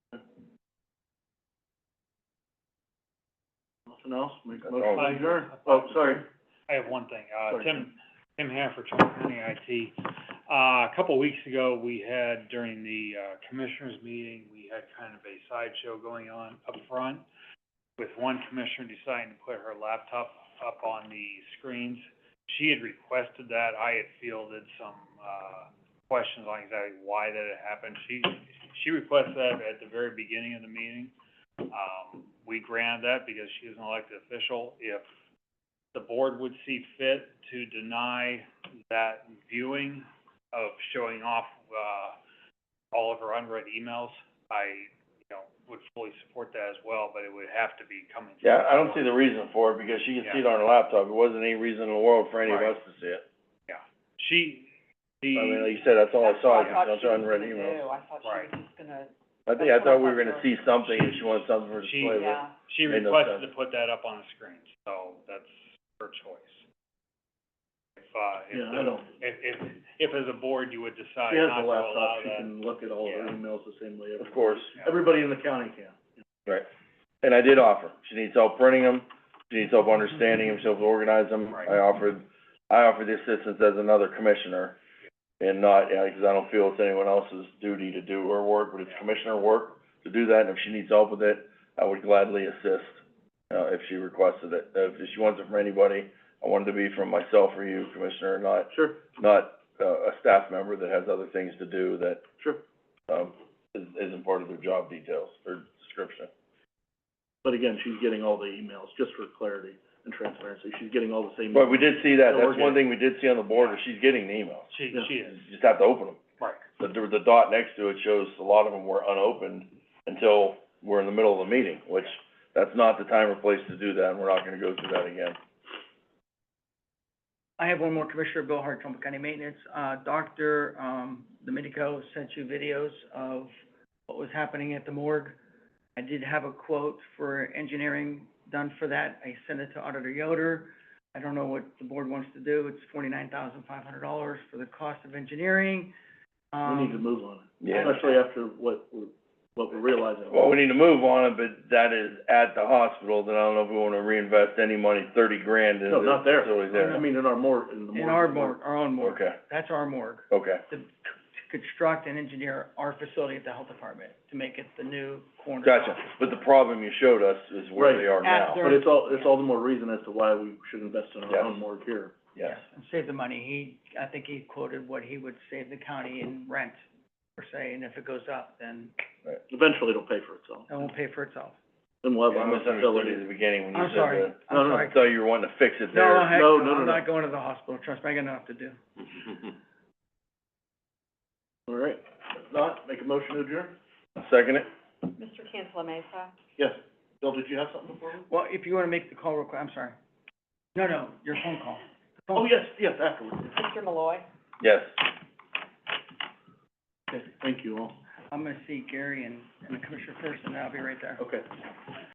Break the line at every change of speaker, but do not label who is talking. Something else, make a
That's
motion
all.
to adjourn. Oh, sorry.
I have one thing, uh,
Sorry,
Tim, Tim Hanford, Trumbull County IT. Uh, a couple weeks ago, we had during the, uh, commissioners meeting, we had kind of a sideshow going on up front with one commissioner deciding to put her laptop up on the screens. She had requested that, I had fielded some, uh, questions on exactly why that had happened. She, she requested that at the very beginning of the meeting. Um, we granted that because she is an elected official. If the board would see fit to deny that viewing of showing off, uh, all of her unread emails, I, you know, would fully support that as well, but it would have to be coming. from
Yeah, I don't
the
see
board.
the reason for it, because she can see it on her laptop, there wasn't any reason in the world for any of
Right.
us to see it.
She, the.
I mean, like you said, that's all I saw, just those unread emails.
I thought
Right.
she was just gonna
I think, I thought we were gonna see something, and she wanted something for
She-
display,
do,
but.
yeah.
She
Made no
requested
sense.
to put that up on the screen, so that's her choice. If, uh, if,
Yeah, I
the-
don't,
if, if, if as a board you would decide
she has
not
a
to allow
laptop, she
that.
can look at all of her
Yeah.
emails the same way everyone.
Of course,
yeah.
Everybody in the county can.
right. And I did offer, she needs help printing them, she needs help understanding them, she helps organize them,
Right.
I offered, I offered the assistance as another commissioner. And not, yeah, because I don't feel it's anyone else's duty to do her work, but it's
Yeah.
commissioner work to do that, and if she needs help with it, I would gladly assist, uh, if she requested it. If she wants it from anybody, I want it to be from myself or you, Commissioner, not,
Sure,
not, uh, a staff member that has other things to do that,
sure.
um, is, isn't part of their job details or description.
But again, she's getting all the emails, just for clarity and transparency. She's getting all the same.
But we
emails.
did see that,
So we're
that's one thing we did see on the board, is she's getting the emails.
She,
Yeah.
she
You
is,
just have to open them.
right,
The, the dot next to it shows a lot of them were unopened until we're in the middle of the meeting, which, that's not the time or place to do that, and we're not gonna go through that again.
I have one more, Commissioner Bill Hart, Trumbull County Maintenance. Uh, Dr. um, Domenico sent you videos of what was happening at the morgue. I did have a quote for engineering done for that. I sent it to Auditor Yoder. I don't know what the board wants to do. It's forty-nine thousand five hundred dollars for the cost of engineering.
We need to
Um,
move on it,
Yeah.
especially after what, we're- what we're realizing.
Well, we need to move on it, but that is at the hospital, then I don't know if we wanna reinvest any money, thirty grand into
No, not there.
facility
I mean, in our morgue, in the morgue.
in our morgue, our own morgue.
Okay,
That's our morgue.
okay,
To to construct and engineer our facility at the health department to make it the new corner.
gotcha. But the problem you showed us is where they are
Right. At
now.
their-
But it's all, it's all the more reason as to why we should invest in our
Yes.
own morgue here.
Yes,
And save the money, he, I think he quoted what he would save the county in rent, per se, and if it goes up, then
Eventually it'll pay for itself.
it won't pay for itself.
Then we'll have
I
our own
misunderstood you at
facility.
the beginning when you
I'm
said
sorry,
that.
I'm
No, no,
sorry.
So you were wanting to fix it
No,
there.
heck,
No,
no,
no, no,
I'm
no.
not going to the hospital, trust me, I got enough to do.
All right. If not, make a motion to adjourn?
Second it?
Mr. Cantala Mesa.
Yes. Bill, did you have something before? we-
Well, if you wanna make the call real quick, I'm sorry. No, no, your phone call. The phone
Oh, yes, yes, afterwards.
Mr. Malloy.
Yes.
Okay, thank you all.
call. I'm gonna see Gary and, and the Commissioner first, and I'll be right there.
Okay.